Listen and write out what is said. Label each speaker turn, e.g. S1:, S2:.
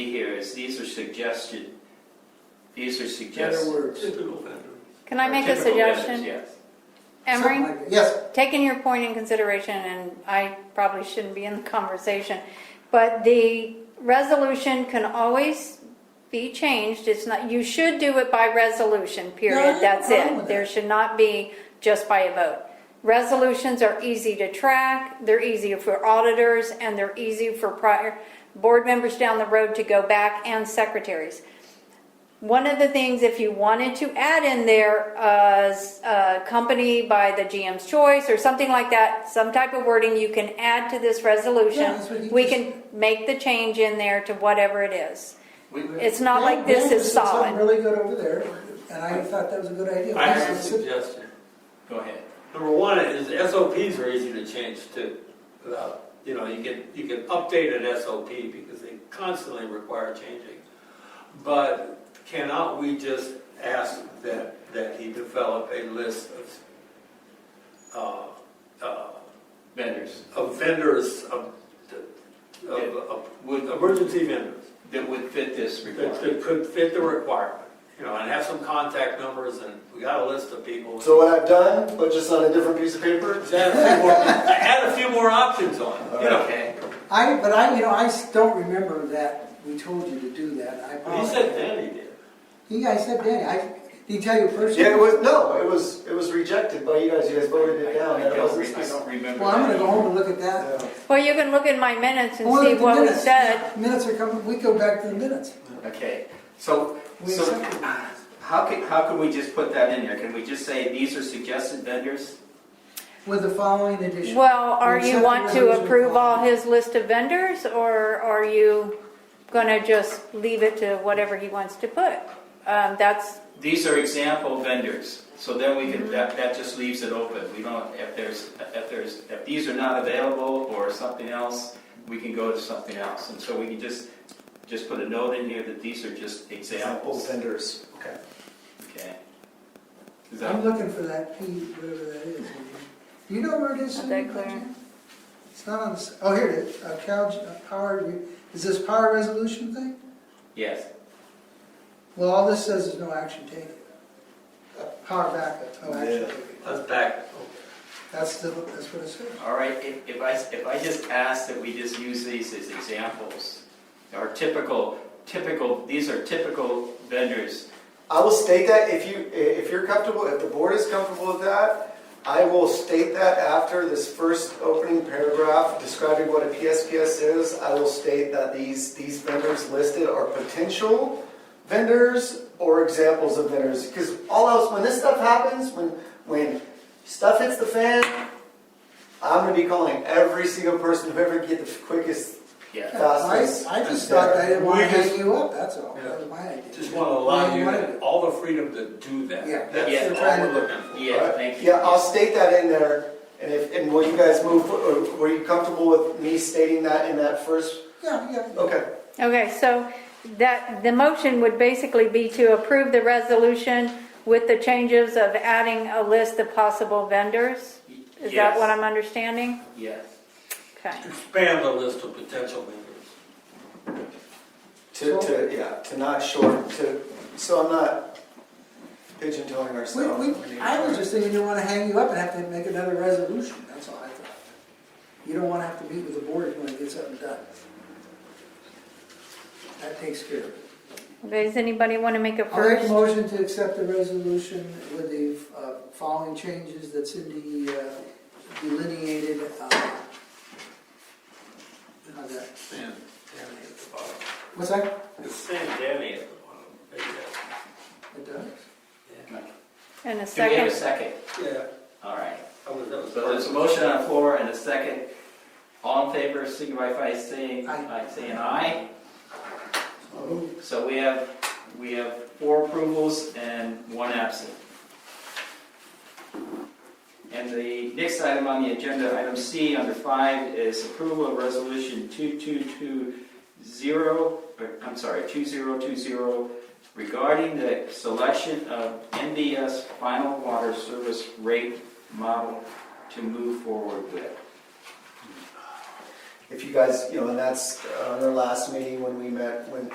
S1: is, these are suggested, these are
S2: Better
S1: suggested.
S2: words.
S3: Typical vendor.
S4: Can I make a
S1: typical vendors,
S4: suggestion?
S1: Yes.
S4: Emery?
S2: Something like that. Yes,
S4: taking your point in consideration, and I probably shouldn't be in the conversation, but the resolution can always be changed. It's not, you should do it by
S2: No,
S4: resolution,
S2: I have
S4: period.
S2: no
S4: That's
S2: problem with
S4: it. There
S2: that.
S4: should not be just by a vote. Resolutions are easy to track, they're easy for auditors, and they're easy for prior board members down the road to go back and secretaries. One of the things, if you wanted to add in there, uh, s- uh, company by the GM's choice or something like that, some type of wording you can add to this
S2: Yeah, that's what
S4: resolution.
S2: you
S4: We
S2: just-
S4: can make the change in there to whatever it is.
S1: We,
S4: It's not like
S2: They- they
S4: this
S2: just did
S4: is
S2: something
S4: solid.
S2: Really good over there, and I thought that was a good idea.
S3: I have a suggestion.
S1: go ahead.
S3: Number one is SOPs are easy to change too. Without, you know, you can, you can update an SOP because they constantly require changing. But cannot we just ask that, that he develop a list of, uh, uh,
S1: Vendors
S3: of vendors, of, of, of
S1: would,
S3: emergency vendors
S1: that would fit this
S3: that
S1: requirement.
S3: that could fit the requirement, you know, and have some contact numbers and we got a list of people.
S5: So what I've done, but just on a different piece of paper?
S3: Add a few more- add a few more options on, it, you know.
S1: Okay,
S2: I, but I, you know, I s- don't remember that we told you to do that. I
S3: He
S2: apologize.
S3: said then he did.
S2: He, I said Danny, I, did he tell you personally?
S5: Yeah, it was, no, it was, it was rejected by you guys, you guys voted it down,
S1: I
S5: that
S1: don't
S5: wasn't
S1: re- I
S5: specific.
S1: don't remember.
S2: Well, I'm gonna
S1: that.
S2: go home and look at that.
S4: Well, you can look in my minutes and
S2: Oh, look
S4: see
S2: at the
S4: what we
S2: minutes.
S4: said.
S2: Minutes are coming, we go back to the minutes.
S1: Okay, so,
S2: We
S1: so
S2: accepted the minutes.
S1: how can, how can we just put that in there? Can we just say, these are suggested vendors?
S2: With the following addition.
S4: Well, are
S2: We
S4: you
S2: accept
S4: want
S2: the
S4: to
S2: resolution
S4: approve all
S2: following.
S4: his list of vendors, or are you gonna just leave it to whatever he wants to put? Um, that's,
S1: These are example vendors, so then we can, that, that just leaves it open. We don't, if there's, if there's, if these are not available or something else, we can go to something else. And so we can just, just put a note in here that these are just
S5: Example
S1: examples,
S5: vendors, okay.
S1: okay? Is
S2: I'm
S1: that,
S2: looking for that P, whatever that is. Do you know where it is?
S4: Not
S2: Cindy,
S4: that clear.
S2: by chance? It's not on the, s- oh, here it is, uh, Cal, uh, power, re- is this power resolution thing?
S1: yes,
S2: Well, all this says is no action taken. Power backup, no action
S5: Yeah.
S2: taken.
S3: Let's back.
S2: That's the, that's what it says.
S1: all right, if, if I, if I just ask that we just use these as examples, or typical, typical, these are typical vendors.
S5: I will state that if you, if you're comfortable, if the board is comfortable with that, I will state that after this first opening paragraph describing what a PSPS is, I will state that these, these vendors listed are potential vendors or examples of vendors. Because all else, when this stuff happens, when, when stuff hits the fan, I'm gonna be calling every single person, whoever can get the quickest,
S1: Yeah,
S5: fastest.
S2: I, I just thought I didn't want to
S3: We just-
S2: hang you up, that's all,
S3: Yeah.
S2: that was my idea.
S3: Just want to allow
S2: Yeah, wanted
S3: you
S2: it.
S3: all the freedom to do that.
S2: Yeah.
S1: Yeah.
S3: That's all we're looking for.
S1: yeah, thank you.
S5: Yeah, I'll state that in there, and if, and will you guys move, or were you comfortable with me stating that in that first?
S2: Yeah, yeah.
S5: Okay,
S4: okay, so that, the motion would basically be to approve the resolution with the changes of adding a list of possible vendors? Is that
S1: Yes,
S4: what I'm understanding?
S1: Yes.
S4: Okay.
S3: Expand the list of potential vendors.
S5: to, to, yeah, to not short, to, so I'm not pigeon-toeing ourselves.
S2: We, we, I was just thinking, you want to hang you up and have to make another resolution, that's all I thought. You don't want to have to meet with the board if you want to get something done. That takes care of it.
S4: Does anybody want to make a
S2: I'll make a
S4: first?
S2: motion to accept the resolution with the uh, following changes that Cindy uh, delineated. uh, how's that?
S3: Sam, Danny at the bottom.
S2: What's that?
S3: It's Sam, Danny at the bottom. Maybe that's-
S2: It does.
S4: And a
S1: Do we have a
S4: second?
S1: second?
S3: Yeah,
S1: All right.
S3: that was, that was.
S1: So there's a motion on the floor and a second. All in favor, signify by saying,
S2: Aye.
S1: by saying aye. So we have, we have four approvals and one absent. And the next item on the agenda, item C, under five, is approval of resolution 2220, or, I'm sorry, 2020 regarding the selection of NDS final water service rate model to move forward with.
S5: If you guys, you know, and that's, uh, our last meeting when we met, when